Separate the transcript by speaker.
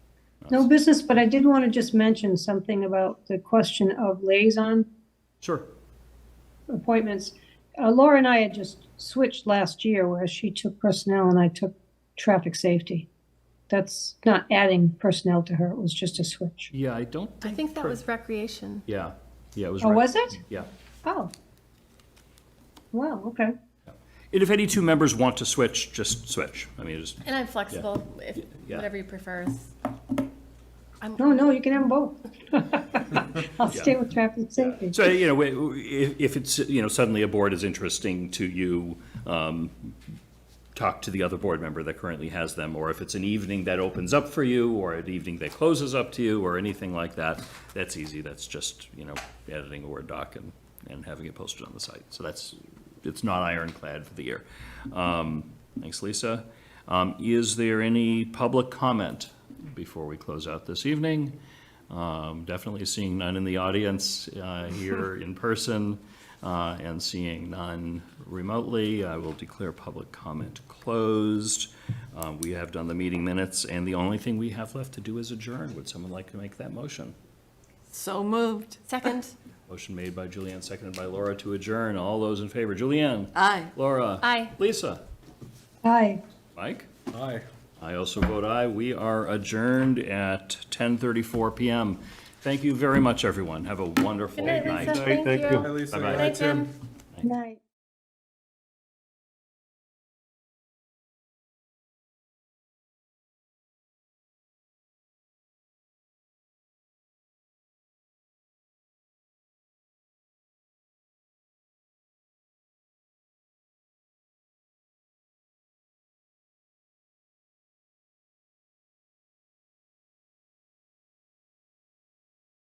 Speaker 1: No business, but I did want to just mention something about the question of liaison
Speaker 2: Sure.
Speaker 1: appointments. Uh, Laura and I had just switched last year where she took personnel and I took traffic safety. That's not adding personnel to her, it was just a switch.
Speaker 2: Yeah, I don't
Speaker 3: I
Speaker 2: think.
Speaker 3: think that
Speaker 2: per-
Speaker 3: was recreation.
Speaker 2: Yeah, yeah, it was.
Speaker 1: Oh,
Speaker 2: right.
Speaker 1: was it?
Speaker 2: Yeah.
Speaker 1: Oh. Wow, okay.
Speaker 2: And if any two members want to switch, just switch. I mean, just,
Speaker 3: And I'm flexible, if,
Speaker 2: yeah.
Speaker 3: whatever you prefer. is- I'm,
Speaker 1: No, no, you can have them both. I'll stay with traffic safety.
Speaker 2: so, you know, we- we- if, if it's, you know, suddenly a board is interesting to you, um, talk to the other board member that currently has them, or if it's an evening that opens up for you, or an evening that closes up to you, or anything like that, that's easy. That's just, you know, editing a Word doc and, and having it posted on the site. So that's, it's not ironclad for the year. Um, thanks, Lisa. Um, is there any public comment before we close out this evening? Um, definitely seeing none in the audience, uh, here in person, uh, and seeing none remotely, I will declare public comment closed. Uh, we have done the meeting minutes, and the only thing we have left to do is adjourn. Would someone like to make that motion?
Speaker 3: so moved. Second,
Speaker 2: Motion made by Julianne, seconded by Laura to adjourn. All those in favor, Julianne?
Speaker 3: aye.
Speaker 2: Laura?
Speaker 3: Aye.
Speaker 2: Lisa?
Speaker 1: Hi.
Speaker 2: Mike? Aye. I also vote aye. We are adjourned at 10:34 PM. Thank you very much, everyone. Have a wonderful
Speaker 3: Good night,
Speaker 2: night.
Speaker 3: Lisa, thank you.
Speaker 4: Hi, Lisa.
Speaker 2: Bye-bye.
Speaker 3: Good night, Tim.
Speaker 1: Night.